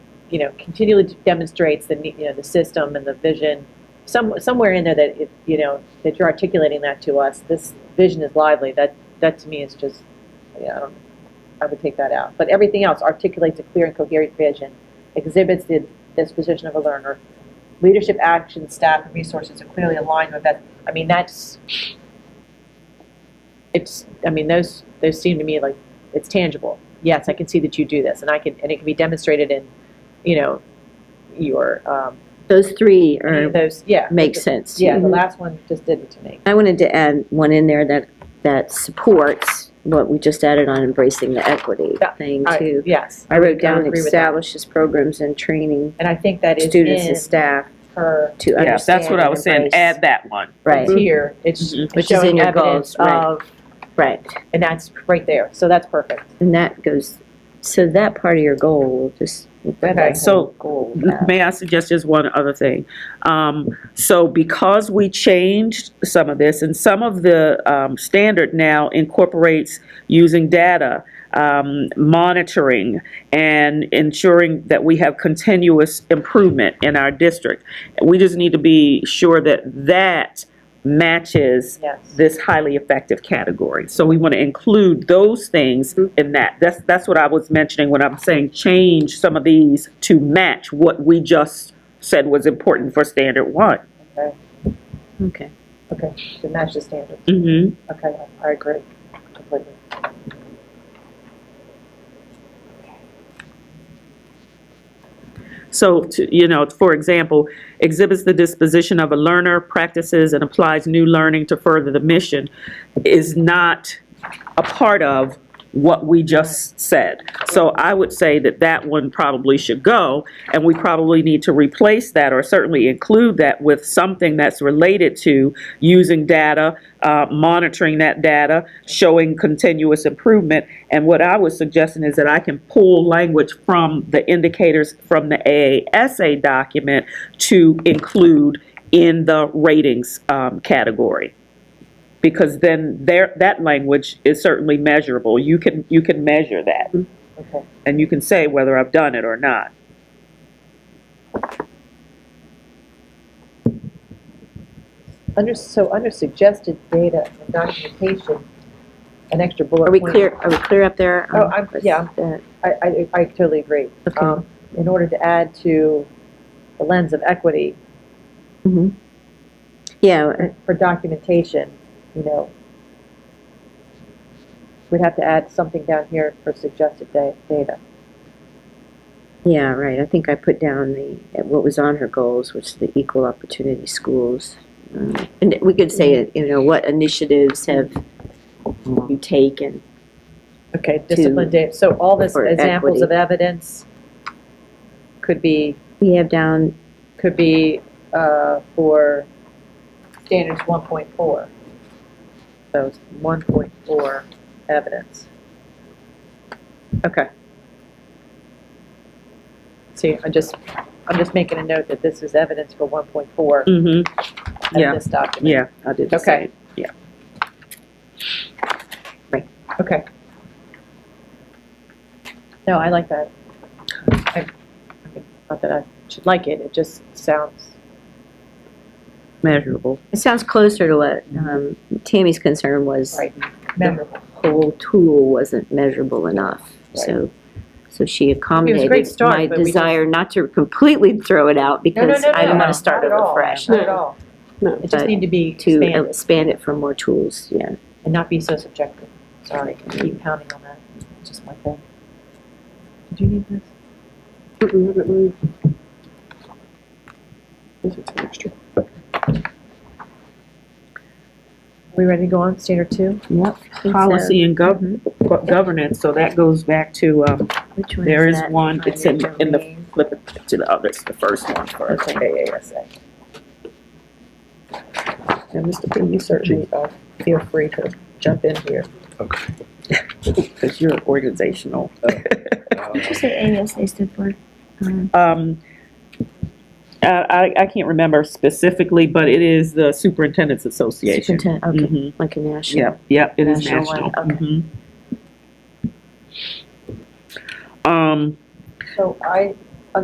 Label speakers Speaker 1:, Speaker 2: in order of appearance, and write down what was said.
Speaker 1: you know, continually demonstrates the, ne- you know, the system and the vision, some, somewhere in there that, it- you know, that you're articulating that to us, this vision is lively, that, that to me is just, yeah, I don't, I would take that out. But everything else articulates a clear and coherent vision, exhibits the disposition of a learner, leadership, action, staff, and resources are clearly aligned with that. I mean, that's, it's, I mean, those, those seem to me like, it's tangible. Yes, I can see that you do this, and I can, and it can be demonstrated in, you know, your, um,
Speaker 2: Those three are,
Speaker 1: those, yeah.
Speaker 2: make sense.
Speaker 1: Yeah, the last one just didn't to me.
Speaker 2: I wanted to add one in there that, that supports what we just added on embracing the equity
Speaker 1: Yeah,
Speaker 2: thing
Speaker 1: I-
Speaker 2: too.
Speaker 1: Yes,
Speaker 2: I wrote
Speaker 1: I
Speaker 2: down
Speaker 1: agree with that.
Speaker 2: establishes programs and training
Speaker 1: and I think that is
Speaker 2: students and
Speaker 1: in
Speaker 2: staff
Speaker 1: her
Speaker 2: to
Speaker 3: Yeah,
Speaker 2: understand.
Speaker 3: that's what I was saying,
Speaker 2: and embrace-
Speaker 3: add that one.
Speaker 2: Right, Mm-hmm.
Speaker 1: tier, it's
Speaker 3: Mhm.
Speaker 2: Which is in
Speaker 1: showing
Speaker 2: your
Speaker 1: evidence
Speaker 2: goals, right.
Speaker 1: of,
Speaker 2: right.
Speaker 1: and that's right there, so that's perfect.
Speaker 2: And that goes, so that part of your goal will just.
Speaker 1: Okay.
Speaker 3: So,
Speaker 2: Goal.
Speaker 3: May I suggest just one other thing? Um, so because we changed some of this, and some of the, um, standard now incorporates using data, um, monitoring, and ensuring that we have continuous improvement in our district. We just need to be sure that that matches
Speaker 1: Yes.
Speaker 3: this highly effective category. So we want to include those things in that. That's, that's what I was mentioning when I'm saying change some of these to match what we just said was important for standard one.
Speaker 1: Okay,
Speaker 2: Okay.
Speaker 1: okay, to match the standard.
Speaker 3: Mm-hmm.
Speaker 1: Okay, I agree completely.
Speaker 3: So, to, you know, for example, exhibits the disposition of a learner, practices and applies new learning to further the mission is not a part of what we just said. So I would say that that one probably should go, and we probably need to replace that or certainly include that with something that's related to using data, uh, monitoring that data, showing continuous improvement. And what I was suggesting is that I can pull language from the indicators from the AASA document to include in the ratings um, category because then there, that language is certainly measurable. You can, you can measure that,
Speaker 1: Okay,
Speaker 3: and you can say whether I've done it or not.
Speaker 1: under, so under suggested data and documentation, an extra bullet
Speaker 2: Are we
Speaker 1: point.
Speaker 2: clear, are we clear up there?
Speaker 1: Oh,
Speaker 2: Um,
Speaker 1: I'm-
Speaker 2: with
Speaker 1: yeah.
Speaker 2: that?
Speaker 1: I, I, I totally agree.
Speaker 2: Okay.
Speaker 1: Um, In order to add to the lens of equity
Speaker 2: Mm-hmm. Yeah,
Speaker 1: for documentation, you know, we'd have to add something down here for suggested da- data.
Speaker 2: Yeah, right. I think I put down the, what was on her goals, which is the equal opportunity schools. Um, And we could say, you know, what initiatives have you taken?
Speaker 1: Okay, discipline data, so all this
Speaker 2: for
Speaker 1: examples
Speaker 2: equity.
Speaker 1: of evidence could be,
Speaker 2: We have down,
Speaker 1: could be, uh, for standards one point four. So it's one point four evidence. Okay. See, I'm just, I'm just making a note that this is evidence for one point four
Speaker 3: Mm-hmm,
Speaker 1: in
Speaker 3: yeah.
Speaker 1: this document.
Speaker 3: yeah, I did the
Speaker 1: Okay.
Speaker 3: same.
Speaker 1: Okay. No, I like that. I- I mean, Not that I should like it, it just sounds,
Speaker 3: Measurable.
Speaker 2: it sounds closer to what um, Tammy's concern was,
Speaker 1: right, memorable.
Speaker 2: the whole tool wasn't measurable enough. So, so she accommodated
Speaker 1: start,
Speaker 2: my
Speaker 1: but we just-
Speaker 2: desire not to completely throw it out
Speaker 1: No, no,
Speaker 2: because
Speaker 1: no,
Speaker 2: I didn't
Speaker 1: no,
Speaker 2: want to start
Speaker 1: not at
Speaker 2: over
Speaker 1: all,
Speaker 2: fresh.
Speaker 1: Not at all.
Speaker 4: No.
Speaker 1: It just
Speaker 2: But
Speaker 1: need to be
Speaker 2: To
Speaker 1: expanded
Speaker 2: expand it for more tools, yeah.
Speaker 1: and not be so subjective. Sorry, I keep pounding on that, It's just my thing. Did you need this?
Speaker 4: This is extra.
Speaker 1: We ready to go on, standard two?
Speaker 3: Yep.
Speaker 2: so.
Speaker 3: Policy and gov- go- governance, so that goes back to, um,
Speaker 2: Which one
Speaker 3: there is
Speaker 2: that?
Speaker 3: one, it's in,
Speaker 1: Financial
Speaker 3: in the,
Speaker 1: means.
Speaker 3: flip it to the other, it's the first one first.
Speaker 1: AASA. And Mr. Quinn, you certainly uh, feel free to jump in here.
Speaker 5: Okay.
Speaker 3: Because you're organizational.
Speaker 5: Um,
Speaker 6: Did you say ASA stood for? Um,
Speaker 3: Um, I, I I can't remember specifically, but it is the Superintendent's Association.
Speaker 2: Superintendent, okay,
Speaker 3: Mhm.
Speaker 2: like a national.
Speaker 3: Yep, yep, it is
Speaker 2: National
Speaker 3: national.
Speaker 2: one,
Speaker 3: Mhm. Um,
Speaker 1: So I